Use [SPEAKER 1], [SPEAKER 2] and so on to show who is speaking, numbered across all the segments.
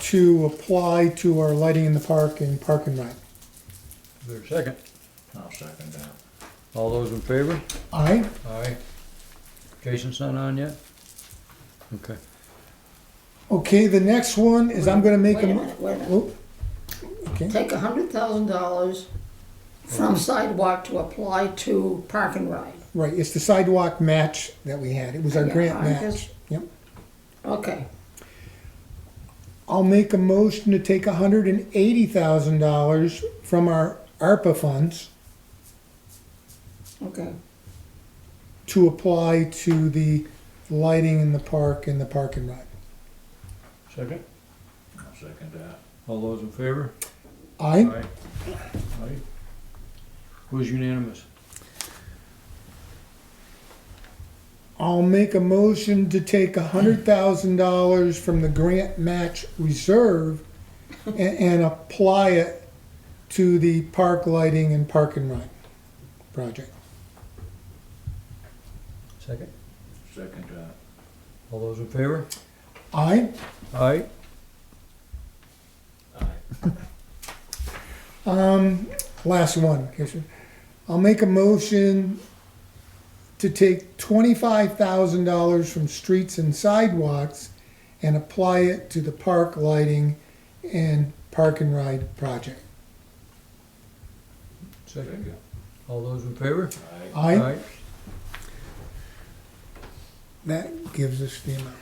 [SPEAKER 1] to apply to our lighting in the park and park and ride.
[SPEAKER 2] Is there a second?
[SPEAKER 3] I'll second that.
[SPEAKER 2] All those in favor?
[SPEAKER 1] Aye?
[SPEAKER 2] Aye. Jason's not on yet? Okay.
[SPEAKER 1] Okay, the next one is I'm gonna make
[SPEAKER 4] Wait
[SPEAKER 1] a. mo-
[SPEAKER 4] minute, wait a minute.
[SPEAKER 1] Oh, Okay,
[SPEAKER 4] Take a hundred thousand dollars from sidewalk to apply to park and ride.
[SPEAKER 1] right, it's the sidewalk match that we had. It was our
[SPEAKER 4] Yeah,
[SPEAKER 1] grant
[SPEAKER 4] I guess-
[SPEAKER 1] match. Yep.
[SPEAKER 4] Okay,
[SPEAKER 1] I'll make a motion to take hundred and eighty thousand dollars from our ARPA funds
[SPEAKER 4] okay,
[SPEAKER 1] to apply to the lighting in the park and the park and ride.
[SPEAKER 2] Second?
[SPEAKER 3] I'll second that.
[SPEAKER 2] All those in favor?
[SPEAKER 1] Aye?
[SPEAKER 2] Aye. Who's unanimous?
[SPEAKER 1] I'll make a motion to take hundred thousand dollars from the grant match reserve and, and apply it to the park lighting and park and ride project.
[SPEAKER 2] Second.
[SPEAKER 3] Second that.
[SPEAKER 2] All those in favor?
[SPEAKER 1] Aye?
[SPEAKER 2] Aye.
[SPEAKER 1] Um, last one, Kirsten. I'll make a motion to take twenty-five thousand dollars from streets and sidewalks and apply it to the park lighting and park and ride project.
[SPEAKER 2] Second. All those in favor?
[SPEAKER 3] Aye.
[SPEAKER 1] Aye? That gives us the amount.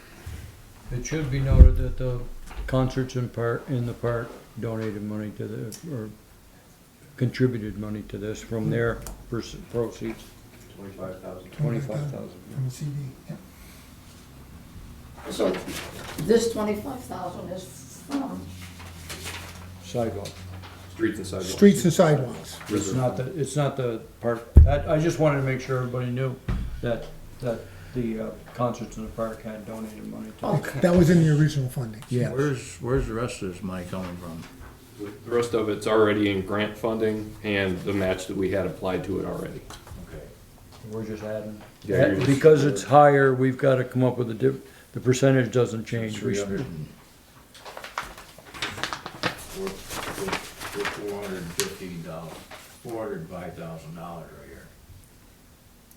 [SPEAKER 2] It should be noted that the concerts in part, in the park donated money to the, or contributed money to this from their pers- proceeds,
[SPEAKER 3] Twenty-five thousand.
[SPEAKER 2] twenty-five thousand.
[SPEAKER 1] From the CD, yeah.
[SPEAKER 4] so this twenty-five thousand is from,
[SPEAKER 2] Sidewalk.
[SPEAKER 3] Streets and sidewalks.
[SPEAKER 1] Streets and sidewalks.
[SPEAKER 2] It's not the, it's not the park, I, I just wanted to make sure everybody knew that, that the uh, concerts in the park had donated money to.
[SPEAKER 4] okay.
[SPEAKER 1] That was in the original funding.
[SPEAKER 3] Where's, where's the rest of this money coming from?
[SPEAKER 5] The rest of it's already in grant funding and the match that we had applied to it already.
[SPEAKER 3] Okay.
[SPEAKER 2] We're just adding.
[SPEAKER 5] Yeah, you're just-
[SPEAKER 2] Because it's higher, we've gotta come up with a diff, the percentage doesn't change.
[SPEAKER 3] Three hundred and. We're, we're four hundred and fifteen dollars, four hundred and five thousand dollars right here.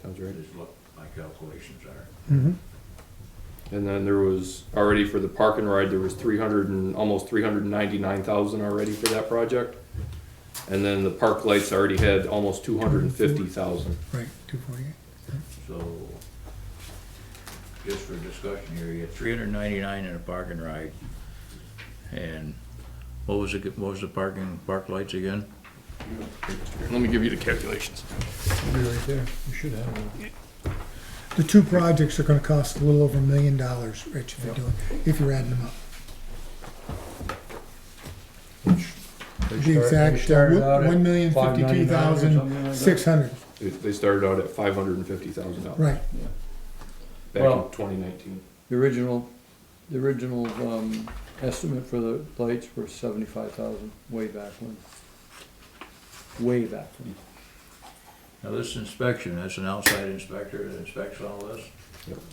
[SPEAKER 5] Sounds
[SPEAKER 3] That is what my calculations are.
[SPEAKER 1] Mhm.
[SPEAKER 5] And then there was already for the park and ride, there was three hundred and, almost three hundred and ninety-nine thousand already for that project. And then the park lights already had almost two hundred and fifty thousand.
[SPEAKER 1] Right, two forty-eight.
[SPEAKER 3] So, just for discussion here, you had three hundred and ninety-nine in a parking ride. And what was it, what was the parking, park lights again?
[SPEAKER 5] Let me give you the calculations.
[SPEAKER 2] Be right there, you should have one.
[SPEAKER 1] The two projects are gonna cost a little over a million dollars, Rich, if you're doing, if you're adding them up.
[SPEAKER 2] They
[SPEAKER 1] The
[SPEAKER 2] start- they
[SPEAKER 1] exact, uh,
[SPEAKER 2] started out at
[SPEAKER 1] one million fifty-two
[SPEAKER 2] 599 or something
[SPEAKER 1] thousand,
[SPEAKER 2] like
[SPEAKER 1] six hundred,
[SPEAKER 5] They- They started out at five hundred and fifty thousand dollars
[SPEAKER 1] right.
[SPEAKER 5] back
[SPEAKER 2] Well-
[SPEAKER 5] in twenty nineteen.
[SPEAKER 2] that. The original, the original, um, estimate for the lights were seventy-five thousand, way back when. Way back when.
[SPEAKER 3] Now, this inspection, that's an outside inspector that inspects all this?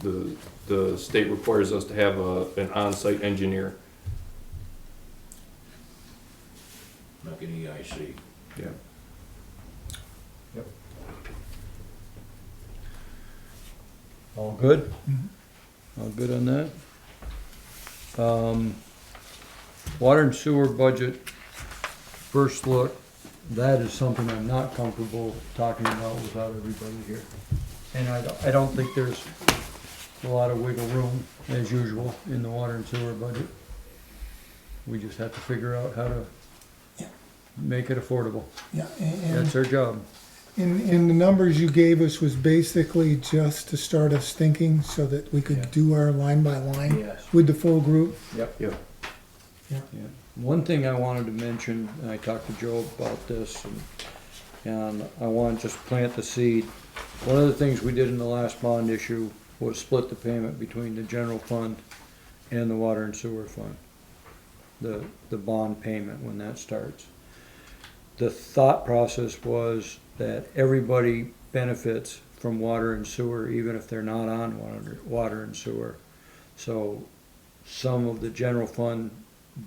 [SPEAKER 5] The, the state requires us to have a, an on-site engineer.
[SPEAKER 3] Like an E EIC.
[SPEAKER 5] Yeah.
[SPEAKER 2] All good?
[SPEAKER 1] Mm-hmm.
[SPEAKER 2] All good on that? Um, water and sewer budget, first look, that is something I'm not comfortable talking about without everybody here. And I, don't- I don't think there's a lot of wiggle room, as usual, in the water and sewer budget. We just have to figure out how to
[SPEAKER 1] Yeah.
[SPEAKER 2] make it affordable.
[SPEAKER 1] Yeah, and- and
[SPEAKER 2] That's our job.
[SPEAKER 1] And, and the numbers you gave us was basically just to start us thinking so that we
[SPEAKER 2] Yeah.
[SPEAKER 1] could do our line by line
[SPEAKER 2] Yes.
[SPEAKER 1] with the full group.
[SPEAKER 2] Yep.
[SPEAKER 5] Yep.
[SPEAKER 1] Yeah.
[SPEAKER 2] Yeah. One thing I wanted to mention, and I talked to Joe about this, and, and I want to just plant the seed. One of the things we did in the last bond issue was split the payment between the general fund and the water and sewer fund. The, the bond payment when that starts. The thought process was that everybody benefits from water and sewer, even if they're not on water, water and sewer. So some of the general fund